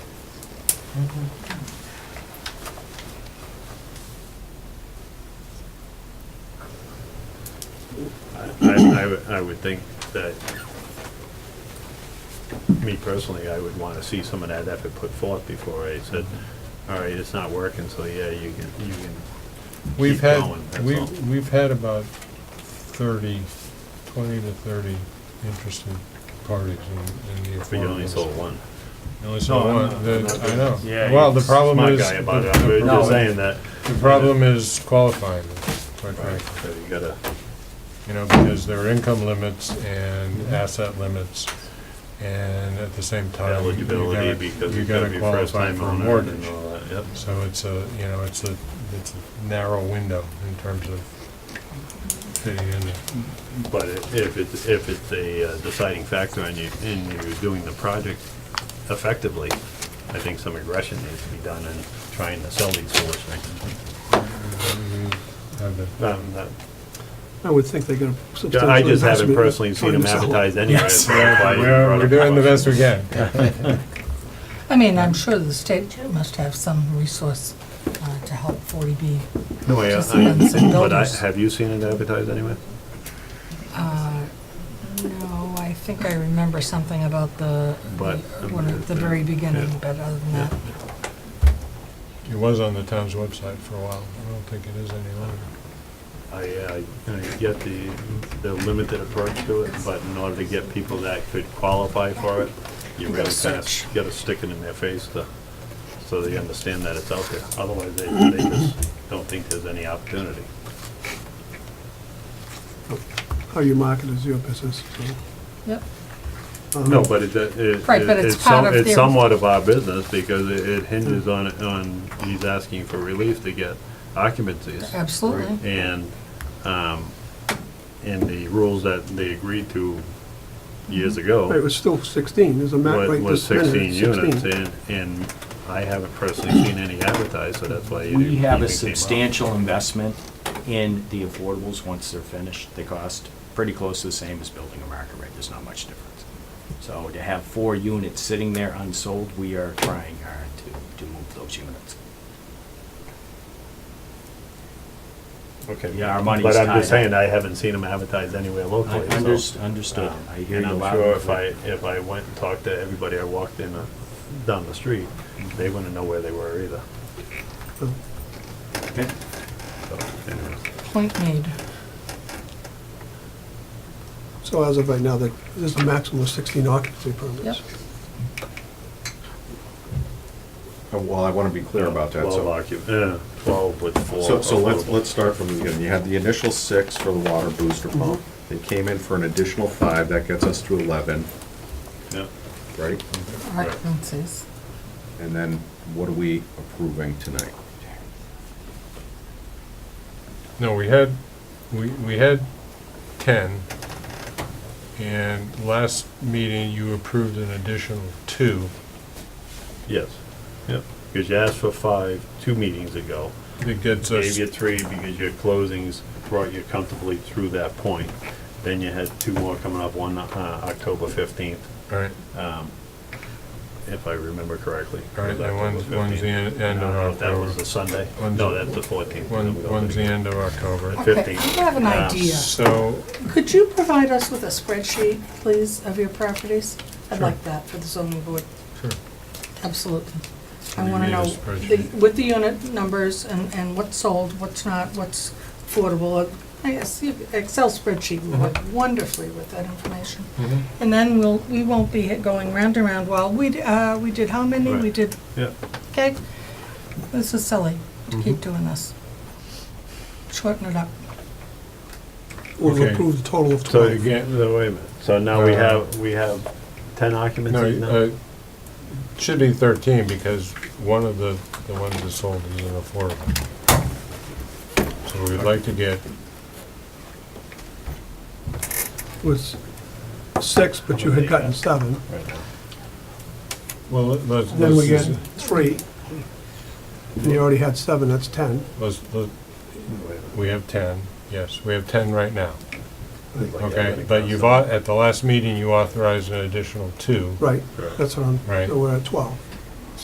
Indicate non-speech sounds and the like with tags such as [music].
Mm-hmm. I, I would, I would think that, me personally, I would wanna see some of that effort put forth before I said, all right, it's not working, so yeah, you can, you can We've keep had, going, that's all. we've, we've had about thirty, twenty to thirty interested parties in, in the But you only affordable. sold one. You only sold No, I'm one, not- the- I'm not I doing know. Yeah, Well, you're the problem smart is. guy about it. the- I'm the- just saying that. The problem is qualifying, them, quite Right, frankly, so you gotta, you know, because there are income limits and Mm-hmm. asset limits, and at the same time. you gotta- eligibility, because you you gotta be qualify first time for a owner and mortgage. all that, yep. So it's a, you know, it's a, it's a narrow window in terms of fitting in there. But i- if it's, if it's a uh, deciding factor and you, and you're doing the project effectively, I think some aggression needs to be done in trying to sell these sort of things. Have the- Um, that- uh, I would think they're gonna substantially. I just haven't possibly- personally seen them trying to sell it. advertised anywhere. Yes, so that's why I We're, brought we're up doing the question. best we [laughs] can. I mean, I'm sure the state must have some resource uh, to help 40B. No, I- Just some- some I- But I, builders. have you seen it advertised anywhere? Uh, No, I think I remember something about the, But, the- one at the very beginning, but other than that, It was on the town's website for a while. I don't think it is any longer. I, I I get the, the limited approach to it, but in order to get people that could qualify for it, you You really gotta kind search. of gotta stick it in their face to, so they understand that it's out there. Otherwise, they, they just don't think there's any opportunity. How you market is your business, yep. so. uh, No, but it, it, it- Right, but it's it's some- part of it's their- somewhat of our business because it- it hinges on, on, he's asking for relief to get occupancies. Absolutely. And, um, and the rules that they agreed to years ago. It was still sixteen, there's a map wa- right was this minute, sixteen it's units, sixteen. and, and I haven't personally seen any advertised, so that's why. it We have even a came up. substantial investment in the affordables once they're finished. They cost pretty close to the same as building a market rate. There's not much difference. So to have four units sitting there unsold, we are trying hard to, to move those units. Okay. Yeah, our money is But I'm just tied up. saying, I haven't seen them advertised anywhere I locally, unders- so. um, Understood. I hear And you I'm loud sure and if I, clear. if I went and talked to everybody I walked in, uh, down the street, they wouldn't know where they were either. Okay. So, anyway. Point made. So as of right now, there- there's a maximum of sixteen occupancy permits. Yep. Uh, Well, I want to be clear about that, Twelve so. occup, yeah, twelve with four. So, so let's, affordable. let's start from the beginning. You had the initial six for the water booster pump. Mm-hmm. They came in for an additional five, that gets us to eleven, Yeah. right? Occupancies. And then what are we approving tonight? No, we had, we, we had ten, and last meeting you approved an additional two. Yes, yeah, because you asked for five, two meetings ago. It gets us, gave you three because your closings brought you comfortably through that point. Then you had two more coming up, one uh, October 15th, right, if I remember correctly. All right, It was and one's- October one's the 15th. en- end I of don't know if That was October. the Sunday? One's- No, that's the 14th. one, one's the end of October. Okay, 15. I have an Um, idea. So, Could you provide us with a spreadsheet, please, of your properties? I'd like that for the zoning board. Sure. Absolutely. What do I you want to mean a know, the- spreadsheet? with the unit numbers and, and what's sold, what's not, what's affordable. uh, I guess you- Excel spreadsheet would work Mm-hmm. wonderfully with that information. Mhm. And then we'll, we won't be hit- going round and round. Well, we, d- uh, we did how many? We Right. did, Yeah, Mm-hmm. okay? This is silly, to Mm-hmm. keep doing this. Shorten it up. We've Okay. approved a total of so twelve. again, no, wait a minute. So now we Uh, have, we have 10 no, occupancies uh, now? it should be thirteen, because one of the, the ones that sold is an affordable. So we'd like to get Was six, but you had gotten seven. Right now. Well, let- let's, Then we get let's, three. And you already had seven, that's ten. let's, let- Wait a minute. we have ten, yes, we have ten right now, Like okay? everybody But comes you've, up. au- at the last meeting, you authorized an additional two, Right, Correct. that's what I'm, Right. so we're at twelve.